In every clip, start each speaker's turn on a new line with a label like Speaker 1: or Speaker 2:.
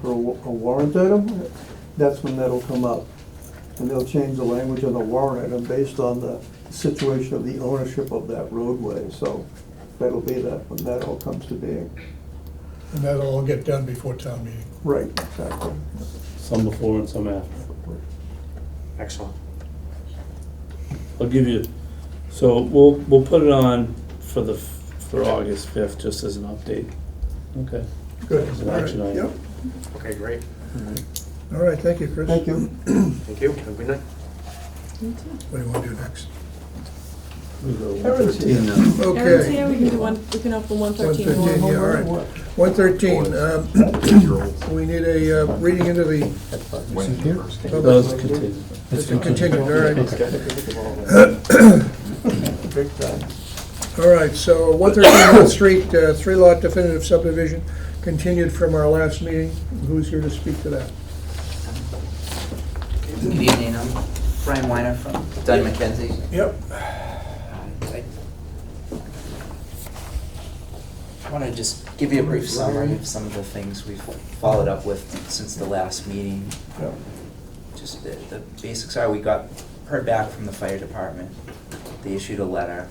Speaker 1: for a wa- a warrant item, that's when that'll come up. And they'll change the language on the warrant item based on the situation of the ownership of that roadway, so that'll be that, when that all comes to being.
Speaker 2: And that'll all get done before town meeting.
Speaker 1: Right, exactly.
Speaker 3: some before and some after.
Speaker 4: Excellent.
Speaker 3: I'll give you, so we'll, we'll put it on for the, for August fifth, just as an update. Okay.
Speaker 2: Good.
Speaker 3: As an
Speaker 2: All right.
Speaker 3: action item.
Speaker 2: Yep.
Speaker 4: Okay, great.
Speaker 2: All right, thank you, Chris.
Speaker 1: Thank you.
Speaker 4: Thank you. Have a good night.
Speaker 2: What do you want to do next?
Speaker 3: We go one
Speaker 1: Karen's here.
Speaker 3: thirteen now.
Speaker 5: Aaron's
Speaker 2: Okay,
Speaker 5: here, we can do one, we can open one thirteen.
Speaker 2: 113, yeah, all right. 113, um, we need a uh, reading into the,
Speaker 6: When the first came.
Speaker 3: Those continue.
Speaker 2: it's a continued, all right.
Speaker 1: Big time.
Speaker 2: All right, so 113 North Street, uh, three-lot definitive subdivision, continued from our last meeting. Who's here to speak to that?
Speaker 7: Good evening, I'm Brian Weiner from Dunn McKenzie. Uh,
Speaker 2: Yep.
Speaker 7: I want to just give you a brief summary of some of the things we've followed up with since the last meeting.
Speaker 1: Yeah.
Speaker 7: Just the, the basics are, we got, heard back from the fire department, they issued a letter.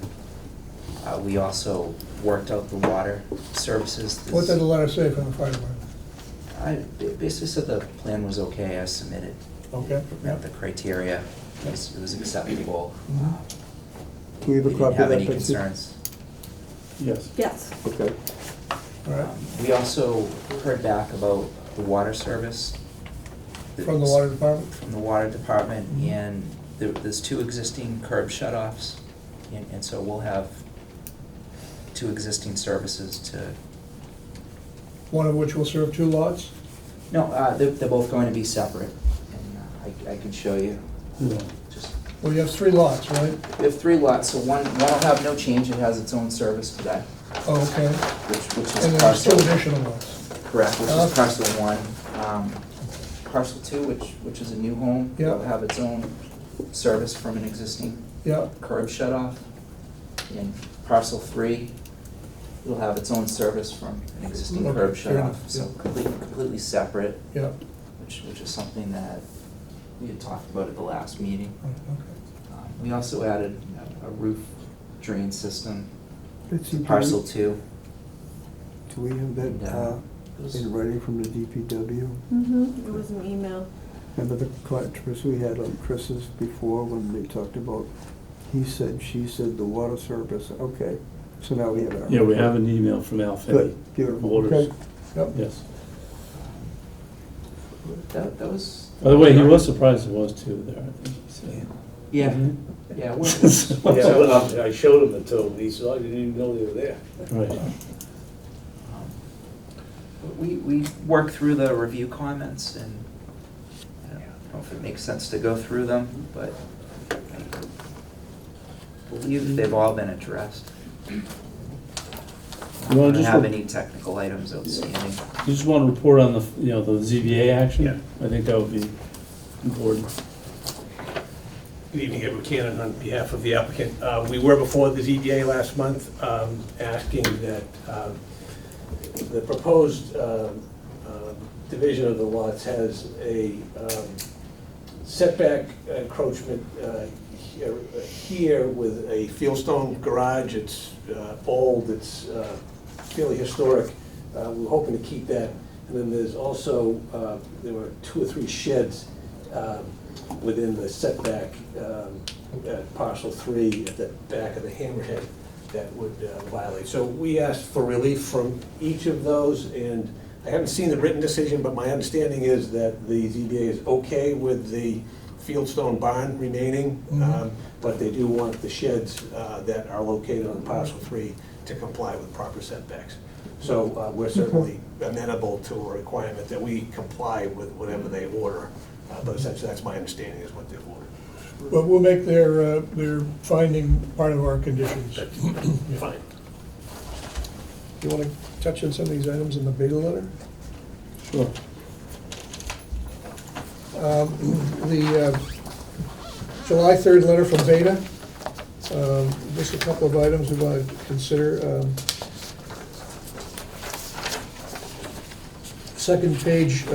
Speaker 7: Uh, we also worked out the water services.
Speaker 2: What did the letter say from the fire department?
Speaker 7: I ba- basically said the plan was okay, I submitted
Speaker 2: Okay.
Speaker 7: met the criteria, it was it was acceptable.
Speaker 1: Mhm.
Speaker 7: Uh,
Speaker 1: Do we have a
Speaker 7: we
Speaker 1: copy
Speaker 7: didn't
Speaker 1: of
Speaker 7: have
Speaker 1: that,
Speaker 7: any
Speaker 1: Betsy?
Speaker 7: concerns.
Speaker 3: Yes.
Speaker 5: Yes,
Speaker 1: Okay.
Speaker 2: All right,
Speaker 7: Um, We also heard back about the water service.
Speaker 2: from the water Mm-hmm. department?
Speaker 7: From the water department, and there, there's two existing curb shut-offs, and, and so we'll have two existing services to,
Speaker 2: One of which will serve two lots?
Speaker 7: no, uh, they're, they're both going to be separate, and uh, I, I can show you,
Speaker 3: Yeah.
Speaker 7: just
Speaker 2: Well, you have three lots, right?
Speaker 7: We have three lots, so one, one will have no change, it has its own service today,
Speaker 2: Oh, okay.
Speaker 7: which, which
Speaker 2: And
Speaker 7: is
Speaker 2: then there's two
Speaker 7: parcel,
Speaker 2: additional lots.
Speaker 7: correct, which
Speaker 2: Oh.
Speaker 7: is parcel one. Um, Parcel two, which, which is a new home,
Speaker 2: Yeah.
Speaker 7: will have its own service from an existing
Speaker 2: Yeah,
Speaker 7: curb shut off. And parcel three, it'll have its own service from an existing
Speaker 2: Okay, fair
Speaker 7: curb shut off,
Speaker 2: enough,
Speaker 7: so
Speaker 2: yeah.
Speaker 7: completely, completely separate,
Speaker 2: yeah.
Speaker 7: which, which is something that we had talked about at the last meeting.
Speaker 2: Right, okay.
Speaker 7: Um, We also added a roof drain system
Speaker 1: Betsy, do we-
Speaker 7: Parcel two.
Speaker 1: Do we have that uh, in writing from the DPW?
Speaker 5: mm-hmm, it was an email.
Speaker 1: Remember the controversy we had on Chris's before when they talked about, he said, she said, the water service, okay, so now we have our.
Speaker 3: Yeah, we have an email from Al Finney.
Speaker 1: Good, beautiful,
Speaker 3: Waters.
Speaker 1: okay.
Speaker 2: Yep.
Speaker 3: Yes.
Speaker 7: That, that was.
Speaker 3: By the way, he was surprised it was two there, I think he said.
Speaker 7: Yeah,
Speaker 3: Mhm.
Speaker 7: yeah, we're, we're-
Speaker 8: Yeah, well, I showed him the two, and he said, "Oh, I didn't even know they were there.
Speaker 3: Right.
Speaker 7: Um, we, we worked through the review comments and I don't know if it makes sense to go through them, but I believe they've all been addressed. I
Speaker 3: You wanna
Speaker 7: don't
Speaker 3: just,
Speaker 7: have
Speaker 3: re-
Speaker 7: any technical items outstanding.
Speaker 3: you just wanna report on the, you know, the ZBA action?
Speaker 8: Yeah.
Speaker 3: I think that would be important.
Speaker 8: Good evening, Edward Cannon, on behalf of the applicant. Uh, We were before the ZBA last month, um, asking that uh, the proposed um, um, division of the lots has a um, setback encroachment uh, here- here with a fieldstone garage. It's uh, old, it's uh, fairly historic. Uh, We're hoping to keep that. And then there's also, uh, there were two or three sheds um, within the setback um, at parcel three at the back of the hammerhead that would uh, violate. So we asked for relief from each of those, and I haven't seen the written decision, but my understanding is that the ZBA is okay with the Fieldstone barn remaining, um, but they do want the sheds uh, that are located on parcel three to comply with proper setbacks. So uh, we're certainly amenable to a requirement that we comply with whatever they order, uh, but essentially, that's my understanding is what they've ordered.
Speaker 2: But we'll make their, uh, their finding part of our conditions.
Speaker 8: That's fine.
Speaker 2: You want to touch on some of these items in the beta letter?
Speaker 3: Sure.
Speaker 2: Um, The uh, July 3rd letter from Beta, um, just a couple of items we want to consider. um, Second page, uh,